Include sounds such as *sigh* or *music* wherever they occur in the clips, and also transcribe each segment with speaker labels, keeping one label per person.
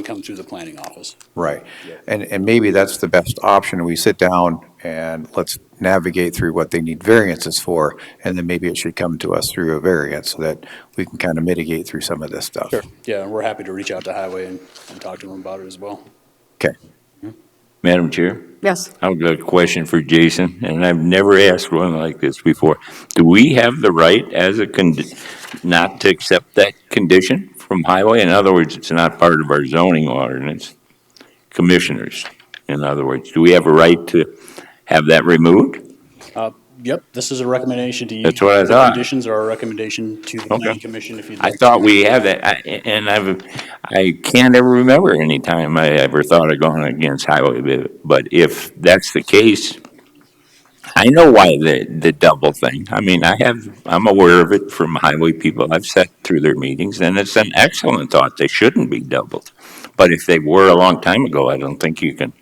Speaker 1: come through the planning office.
Speaker 2: Right. And, and maybe that's the best option. We sit down and let's navigate through what they need variances for, and then maybe it should come to us through a variance so that we can kind of mitigate through some of this stuff.
Speaker 1: Yeah, and we're happy to reach out to Highway and, and talk to them about it as well.
Speaker 2: Okay.
Speaker 3: Madam Chair,
Speaker 4: Yes.
Speaker 3: I've got a question for Jason, and I've never asked one like this before. Do we have the right as a con, not to accept that condition from highway? In other words, it's not part of our zoning ordinance. Commissioners, in other words, do we have a right to have that removed?
Speaker 1: Yep, this is a recommendation to you.
Speaker 3: That's what I
Speaker 1: The
Speaker 3: thought.
Speaker 1: Conditions are a recommendation to the
Speaker 3: Okay.
Speaker 1: planning commission if you'd
Speaker 3: I
Speaker 1: like.
Speaker 3: thought we had that, I- and I've, I can't ever remember any time I ever thought of going against highway. but- But if that's the case, I know why the, the double thing. I mean, I have, I'm aware of it from highway people. I've sat through their meetings, and it's an excellent thought. They shouldn't be doubled. But if they were a long time ago, I don't think you can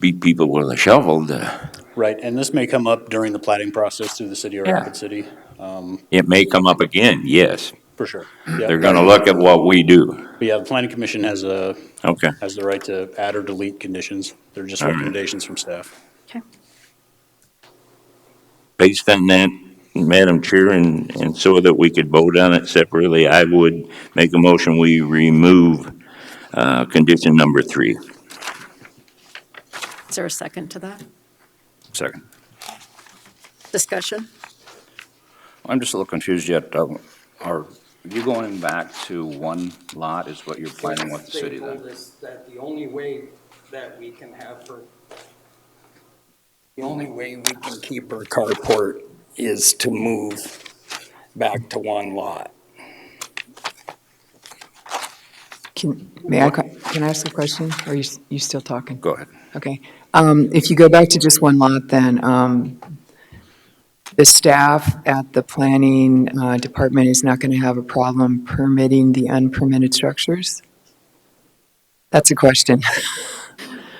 Speaker 3: beat people with a shovel. to-
Speaker 1: Right, and this may come up during the plating process through the city or
Speaker 3: Yeah.
Speaker 1: Rapid City, um,
Speaker 3: It may come up again, yes.
Speaker 1: for sure.
Speaker 3: They're gonna look at what we do.
Speaker 1: But yeah, the planning commission has a,
Speaker 3: Okay.
Speaker 1: has the right to add or delete conditions. They're just
Speaker 3: All right.
Speaker 1: recommendations from staff.
Speaker 4: Okay.
Speaker 3: based on that, Madam Chair, and, and so that we could vote on it separately, I would make a motion, we remove, uh, condition number three.
Speaker 4: Is there a second to that?
Speaker 5: Second.
Speaker 4: Discussion?
Speaker 5: I'm just a little confused yet. Um, Are you going back to one lot is what you're planning with the city
Speaker 6: They
Speaker 5: then?
Speaker 6: told us that the only way that we can have her, the only way we can keep her carport is to move back to one lot.
Speaker 7: Can, may I, que- can I ask a question? Or Are you, s- you still talking?
Speaker 5: Go ahead.
Speaker 7: Okay. Um, if you go back to just one lot, then, um, the staff at the planning, uh, department is not gonna have a problem permitting the unpermitted structures? That's a question.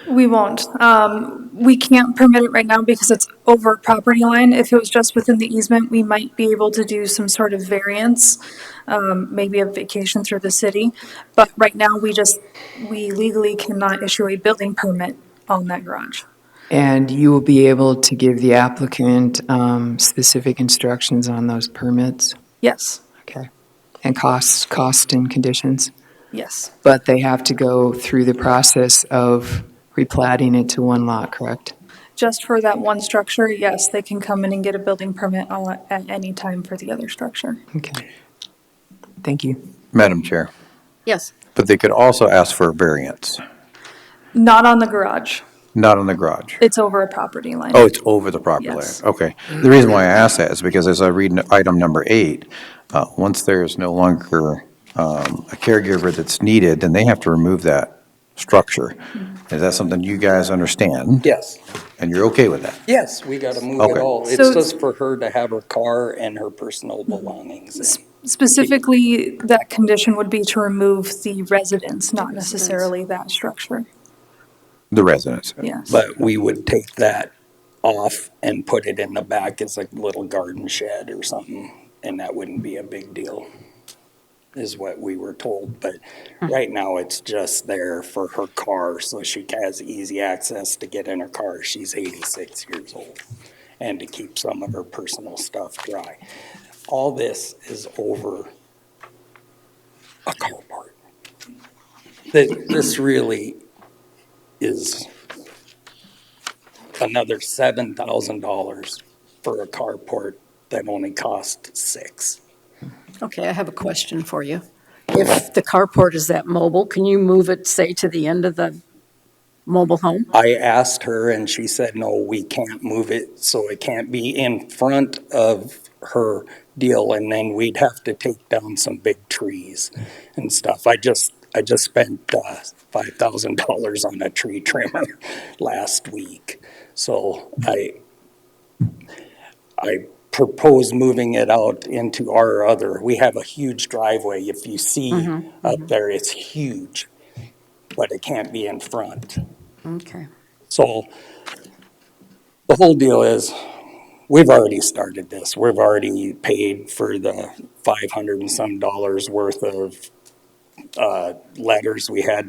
Speaker 8: We won't. Um, we can't permit it right now because it's over property line. If it was just within the easement, we might be able to do some sort of variance, um, maybe a vacation through the city. But right now, we just, we legally cannot issue a building permit on that garage.
Speaker 7: And you will be able to give the applicant, um, specific instructions on those permits?
Speaker 8: Yes,
Speaker 7: Okay. And costs, cost and conditions?
Speaker 8: yes,
Speaker 7: But they have to go through the process of replating it to one lot, correct?
Speaker 8: just for that one structure, yes, they can come in and get a building permit on- at any time for the other structure.
Speaker 7: Okay. Thank you.
Speaker 2: Madam Chair,
Speaker 4: Yes.
Speaker 2: but they could also ask for a variance,
Speaker 8: Not on the garage.
Speaker 2: not on the garage.
Speaker 8: It's over a property line.
Speaker 2: Oh, it's over the property line.
Speaker 8: Yes.
Speaker 2: Okay. The reason why I ask that is because as I read n- item number eight, uh, once there is no longer um, a caregiver that's needed, then they have to remove that structure. Is that something you guys understand?
Speaker 6: Yes.
Speaker 2: And you're okay with that?
Speaker 6: Yes, we gotta move
Speaker 2: Okay.
Speaker 6: it all. It's
Speaker 8: So-
Speaker 6: just for her to have her car and her personal belongings.
Speaker 8: Specifically, that condition would be to remove the residence, not necessarily that structure.
Speaker 2: The residents?
Speaker 8: Yes.
Speaker 6: But we would take that off and put it in the back as a little garden shed or something, and that wouldn't be a big deal, is what we were told. But right now, it's just there for her car, so she has easy access to get in her car. She's 86 years old, and to keep some of her personal stuff dry. All this is over a carport. Th- This really is another seven thousand dollars for a carport that only cost six.
Speaker 4: Okay, I have a question for you. If the carport is that mobile, can you move it, say, to the end of the mobile home?
Speaker 6: I asked her and she said, no, we can't move it, so it can't be in front of her deal and then we'd have to take down some big trees and stuff. I just, I just spent, uh, five thousand dollars on a tree trimmer *laughs* last week. So I, I propose moving it out into our other, we have a huge driveway. If you see up there, it's huge, but it can't be in front.
Speaker 4: Okay.
Speaker 6: So the whole deal is, we've already started this. We've already paid for the five hundred and some dollars worth of uh, letters we had